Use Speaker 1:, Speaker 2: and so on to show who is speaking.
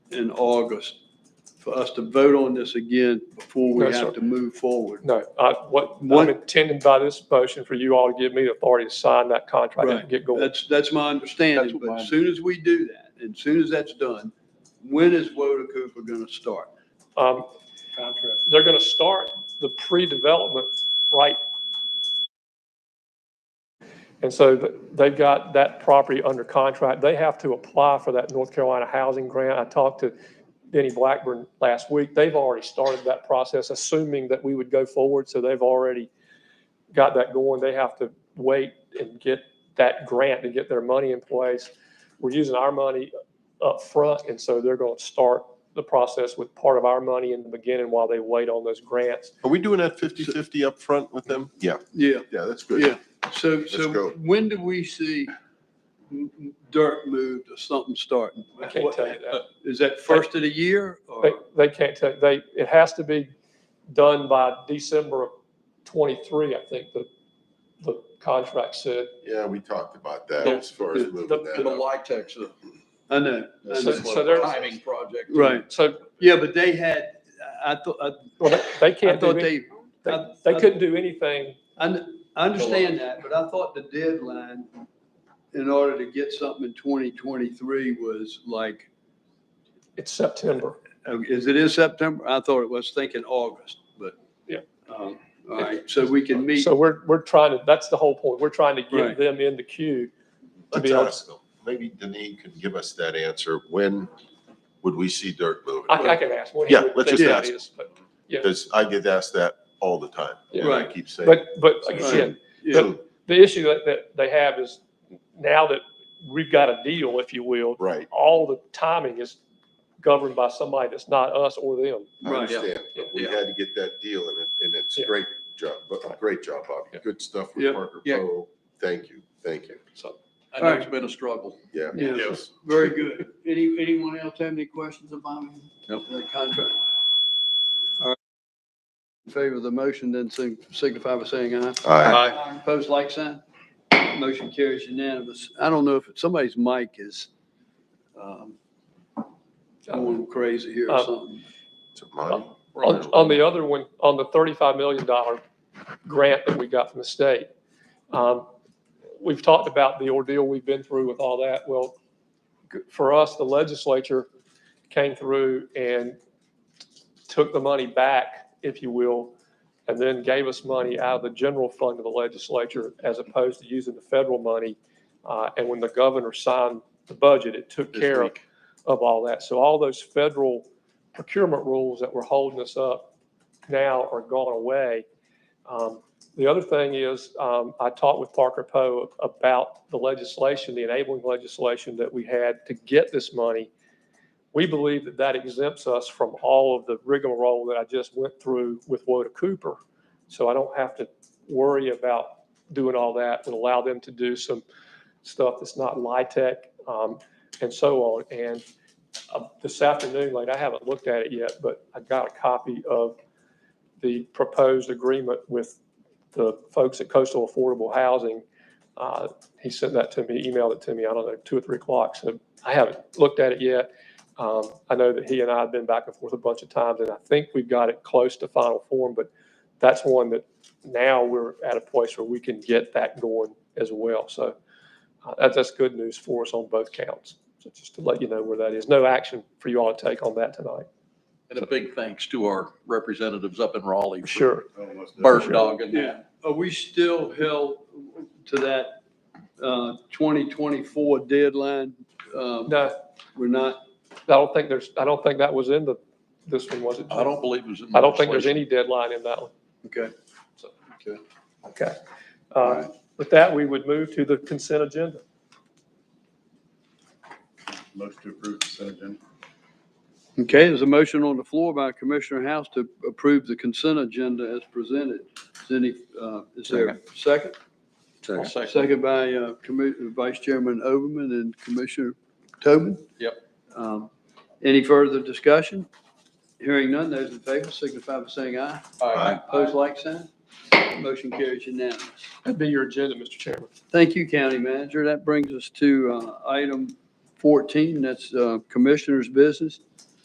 Speaker 1: in August for us to vote on this again before we
Speaker 2: No, sir.
Speaker 1: have to move forward.
Speaker 2: No, I, what,
Speaker 1: What-
Speaker 2: I'm intending by this motion for you all to give me the authority to sign that contract
Speaker 1: Right.
Speaker 2: and get going.
Speaker 1: That's, that's my
Speaker 3: That's
Speaker 1: understanding,
Speaker 3: what
Speaker 1: but
Speaker 3: mine
Speaker 1: as soon as we do that, and as soon as that's done, when is Woda Cooper gonna start?
Speaker 2: Um,
Speaker 3: contract.
Speaker 2: they're gonna start the pre-development right. And so th- they've got that property under contract. They have to apply for that North Carolina housing grant. I talked to Denny Blackburn last week. They've already started that process, assuming that we would go forward. So they've already got that going. They have to wait and get that grant to get their money in place. We're using our money up front, and so they're going to start the process with part of our money in the beginning while they wait on those grants.
Speaker 4: Are we doing that 50/50 up front with them?
Speaker 5: Yeah,
Speaker 1: Yeah,
Speaker 5: yeah, that's good.
Speaker 1: yeah. So,
Speaker 5: go.
Speaker 1: so when do we see m- m- dirt moved or something starting? uh,
Speaker 2: I can't tell you that.
Speaker 1: Is that first of the year
Speaker 2: They,
Speaker 1: or?
Speaker 2: they can't tell, they, it has to be done by December of twenty-three, I think the, the contract said.
Speaker 5: Yeah, we talked about that
Speaker 2: The-
Speaker 5: as far as
Speaker 1: the-
Speaker 5: moving
Speaker 2: the-
Speaker 5: that
Speaker 3: The
Speaker 5: up.
Speaker 3: Litex, uh,
Speaker 1: I know, I
Speaker 3: that's
Speaker 2: So-
Speaker 1: know.
Speaker 3: a
Speaker 2: so there's-
Speaker 3: timing project.
Speaker 1: Right.
Speaker 2: So,
Speaker 1: Yeah, but they had, I thought, I
Speaker 2: well, they- they
Speaker 1: I
Speaker 2: can't do,
Speaker 1: thought
Speaker 2: any-
Speaker 1: they,
Speaker 2: they,
Speaker 1: I-
Speaker 2: they
Speaker 1: I-
Speaker 2: couldn't do anything.
Speaker 1: I, kn- I understand that, but I thought the deadline in order to get something in twenty twenty-three was like,
Speaker 2: It's September.
Speaker 1: oh, is it in September? I thought it was thinking August, but.
Speaker 2: Yeah.
Speaker 1: Um, All right, so we can meet,
Speaker 2: So we're, we're trying to, that's the whole point. We're trying to
Speaker 1: Right.
Speaker 2: get them in the queue. to
Speaker 5: Let's
Speaker 2: be able-
Speaker 5: ask them. Maybe Deneen can give us that answer. When would we see dirt moving?
Speaker 2: I, I can ask. what he
Speaker 5: Yeah,
Speaker 2: would
Speaker 5: let's
Speaker 2: think
Speaker 5: just
Speaker 2: that
Speaker 5: ask.
Speaker 2: is, But, yeah.
Speaker 5: Because I get asked that all the time.
Speaker 2: Yeah.
Speaker 5: And I
Speaker 1: Right.
Speaker 5: keep saying.
Speaker 2: but, but
Speaker 5: Soon.
Speaker 2: again,
Speaker 1: yeah,
Speaker 2: the issue that, that they have is now that we've got a deal, if you will,
Speaker 5: Right,
Speaker 2: all the timing is governed by somebody that's not us or them.
Speaker 5: I
Speaker 1: Right.
Speaker 5: understand. But we
Speaker 3: Yeah.
Speaker 5: had to get that deal and it, and it's
Speaker 2: Yeah.
Speaker 5: great job, but great job, Bobby.
Speaker 2: Yeah.
Speaker 5: Good stuff
Speaker 1: Yeah.
Speaker 5: with Parker
Speaker 3: Yeah.
Speaker 5: Poe. Thank you, thank you.
Speaker 2: So
Speaker 3: I know it's been a struggle.
Speaker 5: Yeah.
Speaker 1: Yeah.
Speaker 5: Yes.
Speaker 1: very good. Any, anyone else have any questions about
Speaker 3: Nope.
Speaker 1: the contract? All right. In favor of the motion, then sig- signify by saying aye.
Speaker 5: All right.
Speaker 1: Opposed, like sign. Motion carries unanimous. I don't know if somebody's mic is um, going crazy here or
Speaker 2: Uh,
Speaker 1: something.
Speaker 5: So mine.
Speaker 2: on, on the other one, on the thirty-five million dollar grant that we got from the state, um, we've talked about the ordeal we've been through with all that. Well, g- for us, the legislature came through and took the money back, if you will, and then gave us money out of the general fund of the legislature as opposed to using the federal money. Uh, and when the governor signed the budget, it took
Speaker 1: This
Speaker 2: care of, of all that. So all those federal procurement rules that were holding us up now are gone away. Um, the other thing is, um, I talked with Parker Poe about the legislation, the enabling legislation that we had to get this money. We believe that that exempts us from all of the rigmarole that I just went through with Woda Cooper. So I don't have to worry about doing all that and allow them to do some stuff that's not LITEC, um, and so on. And uh, this afternoon, like, I haven't looked at it yet, but I got a copy of the proposed agreement with the folks at Coastal Affordable Housing. Uh, He sent that to me, emailed it to me, I don't know, two or three o'clock, so I haven't looked at it yet. Um, I know that he and I have been back and forth a bunch of times, and I think we've got it close to final form, but that's one that now we're at a place where we can get that going as well. So uh, that's, that's good news for us on both counts. So just to let you know where that is. No action for you all to take on that tonight.
Speaker 3: And a big thanks to our representatives up in Raleigh. for
Speaker 2: Sure.
Speaker 3: Bird dog and
Speaker 1: Yeah. Are we still held to that uh, 2024 deadline? Um,
Speaker 2: No,
Speaker 1: We're not,
Speaker 2: I don't think there's, I don't think that was in the, this one, was it?
Speaker 3: I don't believe it was in.
Speaker 2: I don't think there's
Speaker 3: legislation.
Speaker 2: any deadline in that one.
Speaker 1: okay.
Speaker 2: Okay.
Speaker 1: All
Speaker 2: Uh,
Speaker 1: right.
Speaker 2: With that, we would move to the consent agenda.
Speaker 4: Most to approve consent agenda.
Speaker 1: Okay, there's a motion on the floor by Commissioner House to approve the consent agenda as presented. Is any, uh, is there a second?
Speaker 3: I'll second.
Speaker 1: Second by uh, Commi- Vice Chairman Overman and Commissioner Tobin.
Speaker 3: Yep.
Speaker 1: Um, Any further discussion? Hearing none, those in favor signify by saying aye.
Speaker 3: All right.
Speaker 1: Opposed, like sign. Motion carries unanimous.
Speaker 2: That'd be your agenda, Mr. Chairman.
Speaker 1: Thank you, County Manager. That brings us to uh, item 14, that's uh, Commissioner's Business.